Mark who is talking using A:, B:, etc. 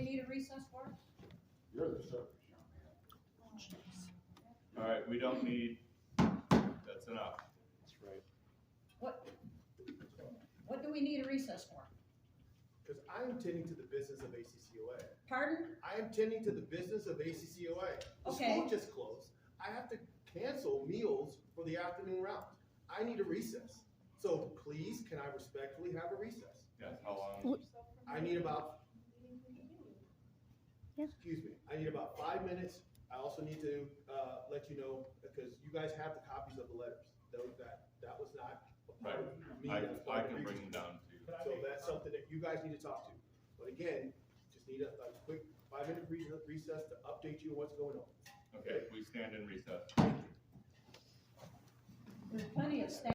A: do recess work?
B: You're the circus young man.
C: All right, we don't need, that's enough.
D: That's right.
A: What, what do we need a recess for?
E: Because I am tending to the business of ACCOA.
A: Pardon?
E: I am tending to the business of ACCOA. The
A: Okay.
E: school just closed. I have to cancel meals for the afternoon round. I need a recess. So please, can I respectfully have a recess?
C: Yes, how long?
E: I need about,
F: Yeah.
E: excuse me, I need about five minutes. I also need to, uh, let you know, because you guys have the copies of the letters. That, that, that was not a part of me.
C: I,
E: That was part
C: I
E: of the
C: can bring
E: reason.
C: them down to you.
E: So that's something that you guys need to talk to. But again, just need a, a quick five-minute recess, recess to update you on what's going on.
C: Okay, we stand in recess.
A: There's plenty of staff